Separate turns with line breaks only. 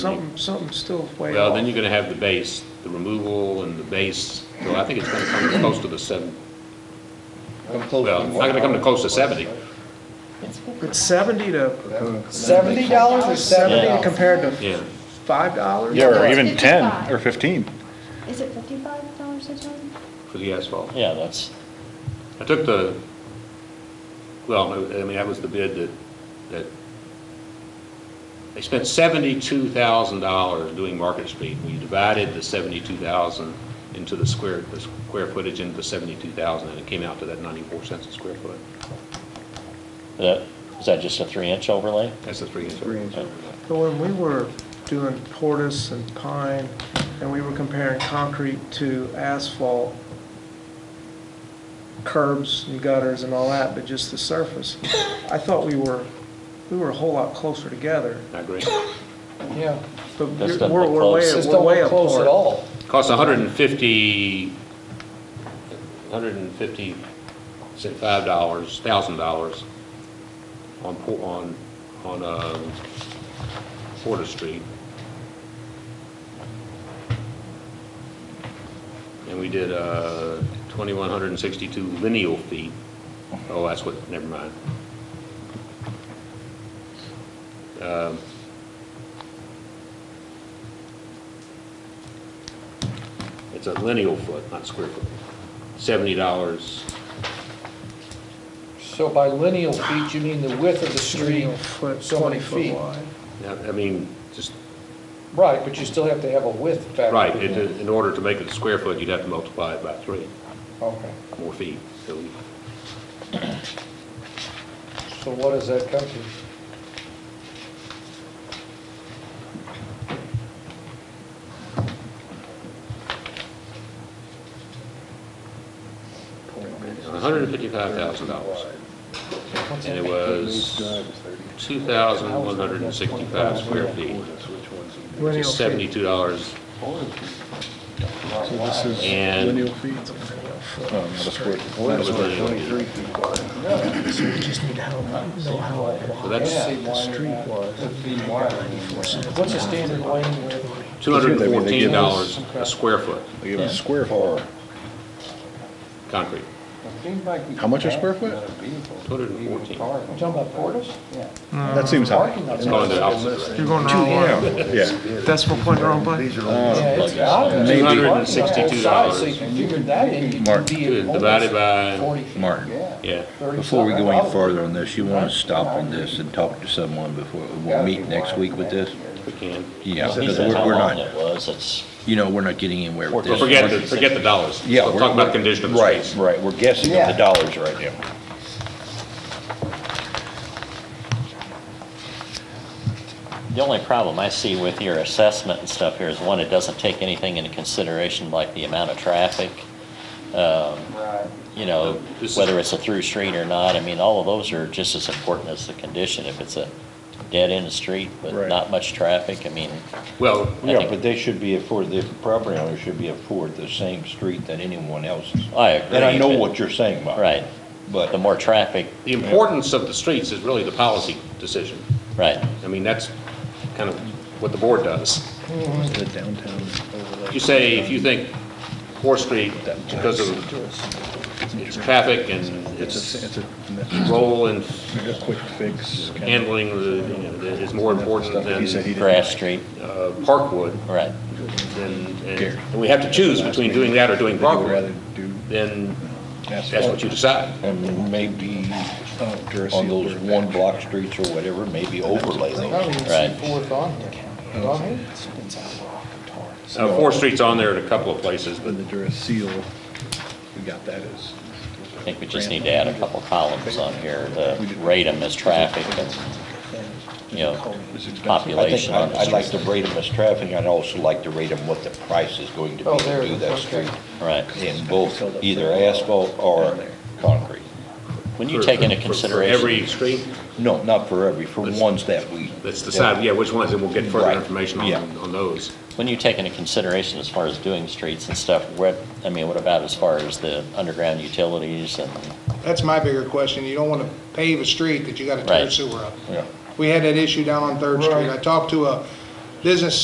Something, something's still way
Well, then
off.
you're gonna have the base, the removal and the base, so I think it's gonna come close to the seven,
Come close
well, it's not gonna come to close to seventy.
It's seventy to,
Seventy dollars or
seventy
seventy?
compared to
Yeah.
five dollars?
Yeah, or
It's
even 10
55.
or 15.
Is it fifty-five dollars a ton?
For the asphalt.
Yeah, that's,
I took the, well, no, I mean, that was the bid that, that, they spent seventy-two thousand dollars doing Market Street. We divided the seventy-two thousand into the square, the square footage into seventy-two thousand, and it came out to that ninety-four cents a square foot.
that, is that just a three-inch overlay?
That's the three inch.
But when we were doing Portis and Pine, and we were comparing concrete to asphalt, curbs and gutters and all that, but just the surface, I thought we were, we were a whole lot closer together,
I agree.
Yeah,
but
That's
we're,
not
we're
close.
way,
just
we're
don't
way
look
apart.
close at all.
Costs hundred and fifty, hundred and fifty, say five dollars, thousand dollars on, Po- on, on, um, Porter Street. And we did, uh, twenty-one hundred and sixty-two lineal feet. Oh, that's what, never mind. Um, It's a lineal foot, not square foot. Seventy dollars
So by lineal feet, you mean the width of the street,
Lineal foot,
so
twenty
many
foot
feet.
wide.
Yeah, I mean, just,
Right, but you still have to have a width factor.
right,
in
it-
there.
in order to make it a square foot, you'd have to multiply it by three,
Okay,
more feet. So we-
so what does that come to?
$155,000,
What's
and it
that?
was 2,165 square feet, which
Lineal
is
feet.
$72
So this is
And-
lineal feet? Oh, not a square.
That was lineal feet.
So we just need to help, know how it
So that's
Yeah. What's the standard lane width?
$214 a square foot,
They give us square foot.
concrete.
How much a square foot?
214.
You talking about Portis?
That seems high.
Parking
It's
lots.
going the opposite
You're
direction.
going the wrong way.
Yeah.
Decimal point in the wrong place.
Yeah, it's out of there.
Maybe.
Parking on both sides, So you
$262.
can figure that in, you can
Mark.
be
Good,
at
Divided by,
almost 40 feet.
Martin.
Yeah.
yeah.
Before we go any
$37.
farther on this, you want to stop on this and talk to someone before, we'll meet next week with this?
We can.
Yeah,
He
because
said
we're
how
we're
long
not,
it was, it's,
you know, we're not getting anywhere with
Well,
this.
forget, the forget the dollars.
Yeah,
We're
we're-
talking about the condition of the
Right,
streets.
right, we're guessing at the dollars right now.
the only problem I see with your assessment and stuff here is, one, it doesn't take anything into consideration, like the amount of traffic, um, you know,
This is-
whether it's a through street or not, I mean, all of those are just as important as the condition, if it's a dead-end street with
Right.
not much traffic, I mean,
Well,
Yeah, but they should be afforded, the property owner should be afforded the same street that anyone else is.
I agree.
And I know
but-
what you're saying, Bob.
Right, the
But
more traffic,
the importance of the streets is really the policy decision.
right.
I mean, that's kind of what the board does.
The downtown overlay.
You say, if you think Fourth Street, because of its traffic and
It's a,
its
it's a- it's
role in
a quick fix. kind of-
handling, the you know, that is more important
Stuff that he said he
than
didn't
Grass
like.
Street,
uh, Parkwood,
right.
then, and and we have to choose between doing that or doing
That he would rather
Parkwood,
do
then that's
asphalt.
what you decide.
and maybe
Oh, Duracell
on those
or-
one block streets or whatever, maybe overlay
I don't
those.
even
Right.
see fourth on here. On here?
Uh, Fourth Street's on there in a couple of places, but
And the Duracell, we got that as.
I think we just need to add a couple columns on here, to rate them as traffic and, you know,
I think
population on
I'd
the
I'd like
street.
to rate them as traffic, I'd also like to rate them what the price is going to
Oh,
be
there
to
it
do
is,
that
okay.
street
Right.
in both either asphalt or concrete.
When you
for-
take into
for- for
consideration.
every street,
No, not for every, for
Let's-
ones that we.
let's decide, yeah, which ones, and we'll get further
Right,
information
yeah.
on, on those.
When you take into consideration as far as doing streets and stuff, what, I mean, what about as far as the underground utilities and,
That's my bigger question. You don't want to pave a street that you got to
Right.
tear sewer up.
Yeah.
We had that issue down on Third Street. I talked to a, business